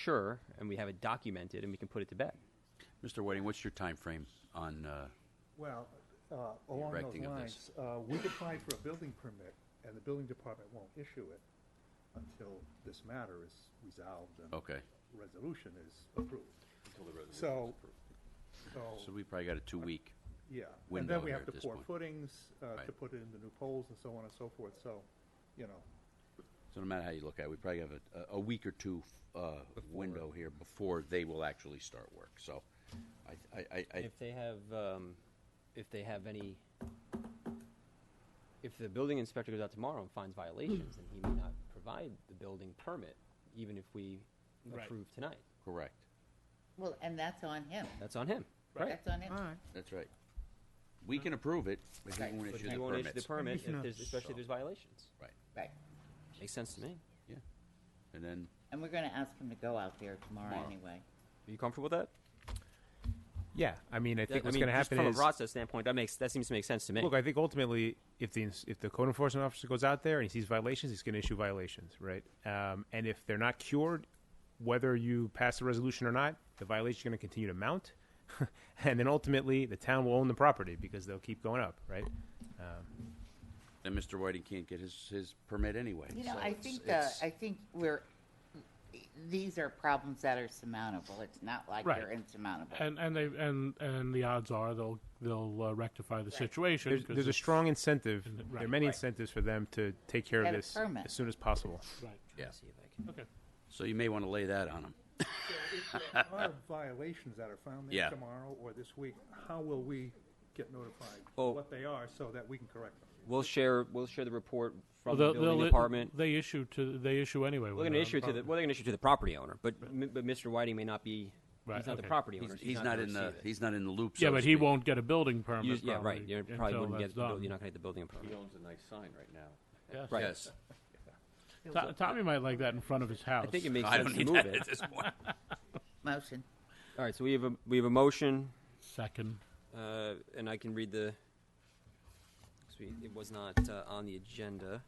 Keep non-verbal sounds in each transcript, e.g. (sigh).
sure and we have it documented and we can put it to bed. Mr. Whiting, what's your time frame on, uh, Well, uh, along erecting those of lines, this. uh, we could apply for a building permit, and the building department won't issue it until this matter is resolved and okay. resolution is approved. So, So so, we probably got a two-week, yeah. And window then we here have at to this pour point. footings, uh, to Right. put in the new poles and so on and so forth, so, you (laughs) know, so no matter how you look at it, we probably have a, a- a week or two, uh, window here before they will actually start work, so I, I, I- I, If they have, um, if they have any, if the building inspector goes out tomorrow and finds violations, then he may not provide the building permit, even if we Right. approve tonight. correct. Well, and that's on him. That's on him. That's on him. That's right. We can approve it, but he Right. won't But issue he the won't issue the permits. permit, Maybe if there's, not. especially if there's violations. Right, Right. Makes sense to me. yeah. And then, And we're gonna ask him to go out there tomorrow Tomorrow. anyway. Are you comfortable with that? Yeah, I mean, I think I what's mean, going to just happen from is a process standpoint, that makes that seems to make sense to me. look. I think ultimately, if the ins- if the code enforcement officer goes out there and he sees violations, he's going to issue violations, right? Um, and if they're not cured, whether you pass the resolution or not, the violations are going to continue to mount, (laughs) and then ultimately the town will own the property because they'll keep going up, right? then Mr. Whiting can't get his, his permit anyway. You know, so I it's- think, uh, it's- I think we're, these are problems that are surmountable. It's not like Right. they're insurmountable. And and they and and the odds are they'll they'll uh, rectify the situation. There's, 'cause there's a it's- strong incentive. there are right, many right. incentives for them to take care of Get a this permit. as soon as possible. Right. Yeah, See if I can- Okay. so you may want to lay that on him. if there are violations that are found Yeah. there tomorrow or this week, how will we get notified Oh. Well- what they are so that we can correct them? We'll share we'll share the report from Well, the building department. They issue to they issue anyway. We're going to issue it to the well, they're going to issue it to the property owner, but m- but Mr. Whiting may not be. Right, he's not the okay. property He's, owner. so he's not gonna in the, receive it. he's not in the loop, yeah, so to but he speak. won't get a building You- permit. yeah, right. probably, You probably until wouldn't that's get the building. You're done. not going to get the building permit. He owns a nice sign right now. Yes. Right. Yes. To- Tommy might like that in front of his house. I think it makes I sense don't to need move that it. at this point. Motion. All right, so we have a we have a motion, second. uh, and I can read the. 'cause we- It was not uh, on the agenda.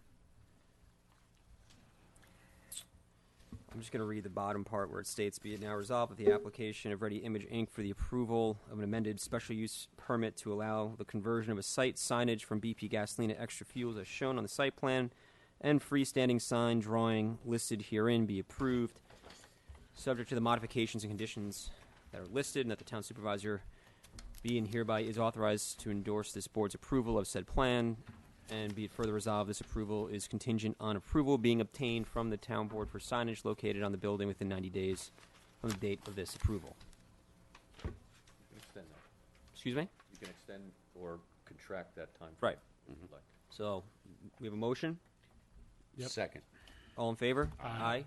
I'm just going to read the bottom part where it states, "Be it now resolved that the application of Ready Image Inc. for the approval of an amended special use permit to allow the conversion of a site signage from BP gasoline to extra fuels as shown on the site plan, and freestanding sign drawing listed herein be approved." subject to the modifications and conditions that are listed, and that the town supervisor be and hereby is authorized to endorse this board's approval of said plan, and be it further resolved, this approval is contingent on approval being obtained from the town board for signage located on the building within 90 days from the date of this approval. You can extend that. Excuse me? You can extend or contract that time. Right. if you'd like. So, we have a motion. Yep. Second. All in favor? Aye.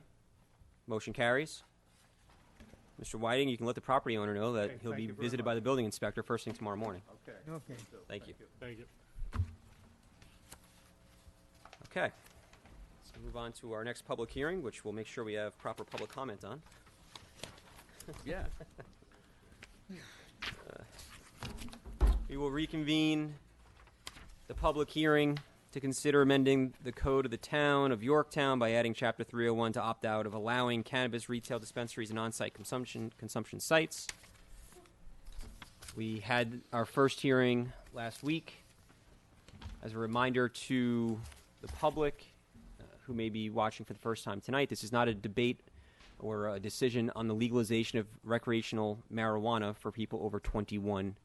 Motion carries. Mr. Whiting, you can let the property owner know that Okay, he'll thank be you very visited by much. the building inspector first thing tomorrow morning. Okay. Okay. so Thank you. Thank you. Okay. Let's move on to our next public hearing, which we'll make sure we have proper public comment on. Yeah. We will reconvene the public hearing to consider amending the code of the town of Yorktown by adding chapter 301 to opt out of allowing cannabis retail dispensaries and on-site consumption consumption sites. We had our first hearing last week. As a reminder to the public uh, who may be watching for the first time tonight, this is not a debate or a decision on the legalization of recreational marijuana for people over 21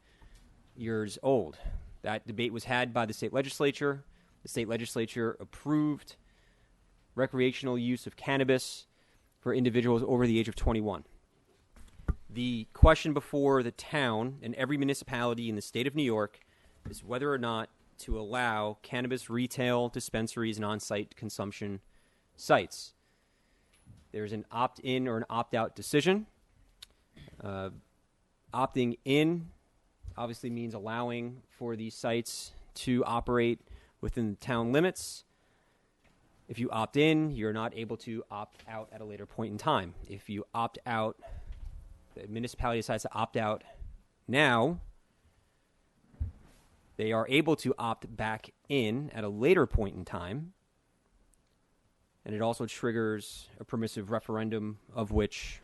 years old. That debate was had by the state legislature. The state legislature approved recreational use of cannabis for individuals over the age of 21. The question before the town and every municipality in the state of New York is whether or not to allow cannabis retail dispensaries and on site consumption sites. There's an opt in or an opt out decision. Uh, opting in obviously means allowing for these sites to operate within the town limits. If you opt in, you're not able to opt out at a later point in time. If you opt out, the municipality decides to opt out now, they are able to opt back in at a later point in time. And it also triggers a permissive referendum of which